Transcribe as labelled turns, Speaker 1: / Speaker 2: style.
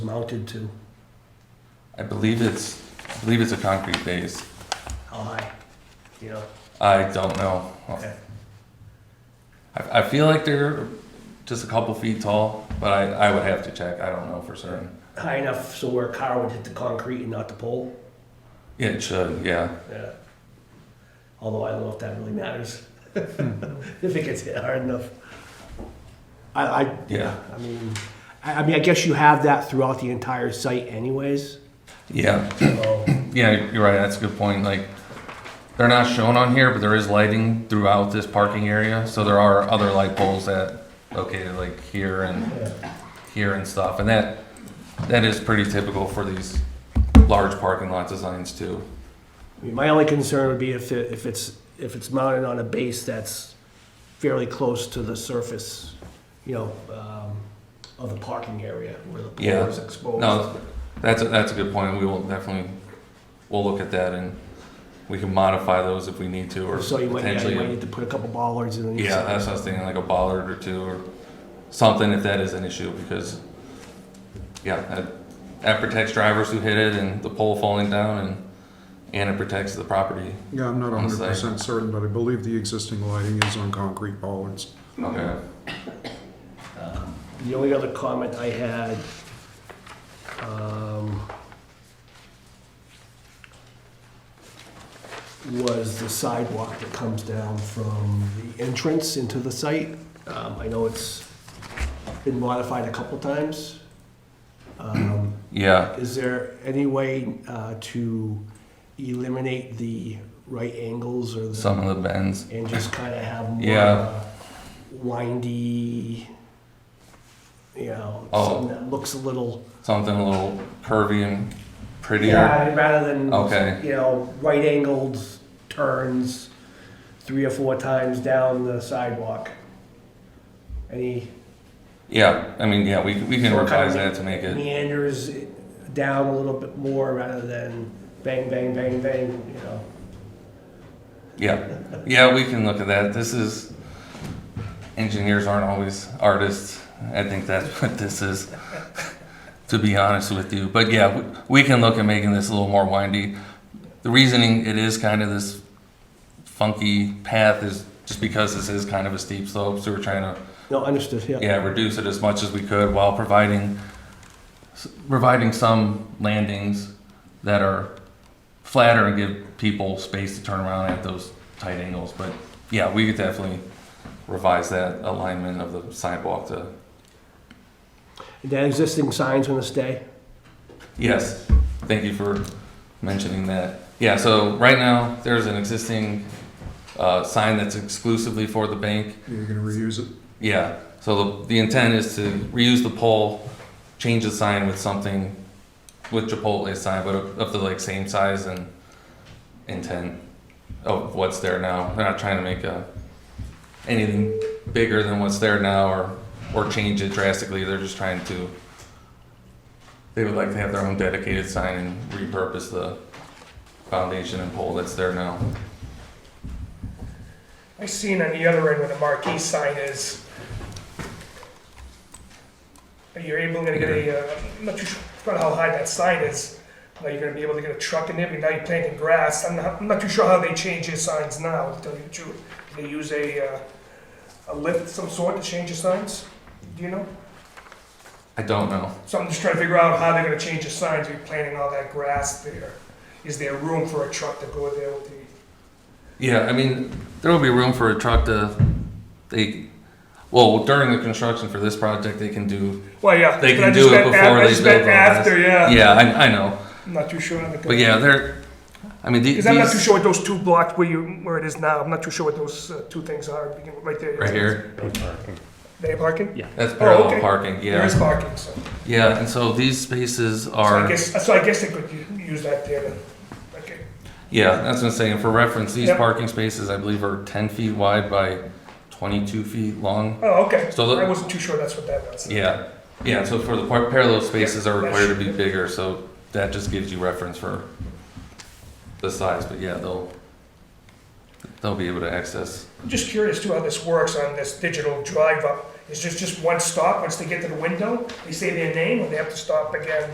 Speaker 1: mounted to?
Speaker 2: I believe it's, I believe it's a concrete base.
Speaker 1: How high? You know?
Speaker 2: I don't know.
Speaker 1: Okay.
Speaker 2: I, I feel like they're just a couple feet tall, but I, I would have to check. I don't know for certain.
Speaker 1: High enough so where a car would hit the concrete and not the pole?
Speaker 2: Yeah, It should, yeah.
Speaker 1: Yeah. Although I don't know if that really matters. If it gets hit hard enough.
Speaker 3: I, I,
Speaker 2: Yeah.
Speaker 1: I mean,
Speaker 3: I I mean, I guess you have that throughout the entire site anyways.
Speaker 2: Yeah.
Speaker 1: so,
Speaker 2: Yeah, you're right. That's a good point. Like, they're not shown on here, but there is lighting throughout this parking area. So there are other light poles that located like here and
Speaker 1: yeah.
Speaker 2: here and stuff. And that, that is pretty typical for these large parking lot designs too.
Speaker 3: I mean, my only concern would be if, it- if it's, if it's mounted on a base that's fairly close to the surface, you know, um, of the parking area where the
Speaker 2: Yeah.
Speaker 3: pole is exposed.
Speaker 2: No, that's, a- that's a good point. We will definitely, we'll look at that and we can modify those if we need to or
Speaker 3: So you might, yeah, you might
Speaker 2: potentially.
Speaker 3: need to put a couple bollards in. each
Speaker 2: Yeah,
Speaker 3: side.
Speaker 2: that's what I was thinking, like a bollard or two or something if that is an issue because, yeah, that, that protects drivers who hit it and the pole falling down and, and it protects the property.
Speaker 4: Yeah, I'm not
Speaker 2: On the
Speaker 4: hundred percent certain, but I believe the existing lighting is on concrete bollards.
Speaker 2: Okay.
Speaker 3: The only other comment I had, um, was the sidewalk that comes down from the entrance into the site. Um, I know it's been modified a couple times. Um,
Speaker 2: Yeah,
Speaker 3: is there any way, uh, to eliminate the right angles or the?
Speaker 2: some of the bends.
Speaker 3: and just kind of have more
Speaker 2: Yeah.
Speaker 3: uh, windy, you know,
Speaker 2: Oh.
Speaker 3: something that looks a little
Speaker 2: Something a little curvy and prettier.
Speaker 1: Yeah, rather than,
Speaker 2: Okay.
Speaker 1: you know, right angled turns three or four times down the sidewalk. Any
Speaker 2: Yeah, I mean, yeah, we, we
Speaker 1: So
Speaker 2: can
Speaker 1: kind of
Speaker 2: revise that to make it.
Speaker 1: meanders it down a little bit more rather than bang, bang, bang, bang, you know?
Speaker 2: Yeah, yeah, we can look at that. This is, engineers aren't always artists. I think that's what this is, to be honest with you. But yeah, w- we can look at making this a little more windy. The reasoning it is kind of this funky path is just because this is kind of a steep slope, so we're trying to
Speaker 3: no understood yeah.
Speaker 2: yeah, reduce it as much as we could while providing, s- providing some landings that are flatter and give people space to turn around at those tight angles. But yeah, we could definitely revise that alignment of the sidewalk to,
Speaker 3: That existing sign's gonna stay.
Speaker 2: yes, thank you for mentioning that. Yeah, so right now, there's an existing, uh, sign that's exclusively for the bank.
Speaker 4: You're gonna reuse it?
Speaker 2: Yeah, so the, the intent is to reuse the pole, change the sign with something, with Chipotle sign, but of, of the like same size and intent of what's there now. They're not trying to make a, anything bigger than what's there now or, or change it drastically. They're just trying to, they would like to have their own dedicated sign and repurpose the foundation and pole that's there now.
Speaker 5: I seen on the other end where the marquee sign is. You're able to get a, uh, I'm not too sure about how high that sign is. Now you're gonna be able to get a truck in there, but now you're planting grass. I'm not, I'm not too sure how they change your signs now, to tell you the truth. Do they use a, uh, a lift of some sort to change your signs? Do you know?
Speaker 2: I don't know.
Speaker 5: So I'm just trying to figure out how they're gonna change the signs, you're planting all that grass there. Is there room for a truck to go there with the
Speaker 2: Yeah, I mean, there will be room for a truck to, they, well, during the construction for this project, they can do,
Speaker 5: Well, yeah.
Speaker 2: They
Speaker 5: but
Speaker 2: can
Speaker 5: I just
Speaker 2: do it
Speaker 5: meant
Speaker 2: before
Speaker 5: af-
Speaker 2: they
Speaker 5: I just meant
Speaker 2: build on
Speaker 5: after, yeah.
Speaker 2: yeah, I, I know.
Speaker 5: I'm not too sure. on the-
Speaker 2: But yeah, they're, I mean, the-
Speaker 5: Because I'm not too
Speaker 2: these,
Speaker 5: sure what those two blocks where you, where it is now, I'm not too sure what those uh, two things are, begin with right there.
Speaker 2: right here,
Speaker 5: They parking?
Speaker 2: that's parallel
Speaker 5: Oh, okay.
Speaker 2: parking,
Speaker 5: There is
Speaker 2: yeah.
Speaker 5: parking, so.
Speaker 2: Yeah, and so these spaces
Speaker 5: So I
Speaker 2: are,
Speaker 5: guess, so I guess they could u- use that there then. Okay,
Speaker 2: yeah, that's what I'm saying. For reference, these
Speaker 5: Yep.
Speaker 2: parking spaces, I believe, are ten feet wide by twenty-two feet long.
Speaker 5: oh, okay.
Speaker 2: So the-
Speaker 5: I wasn't too sure that's what that was.
Speaker 2: Yeah, yeah, so for the par- parallel spaces are
Speaker 5: Yeah,
Speaker 2: required to
Speaker 5: that's-
Speaker 2: be bigger, so that just gives you reference for the size, but yeah, they'll, theyll be able to access.
Speaker 5: I'm just curious too how this works on this digital drive up. it's just, just one stop, once they get to the window, they say their name, and they have to stop again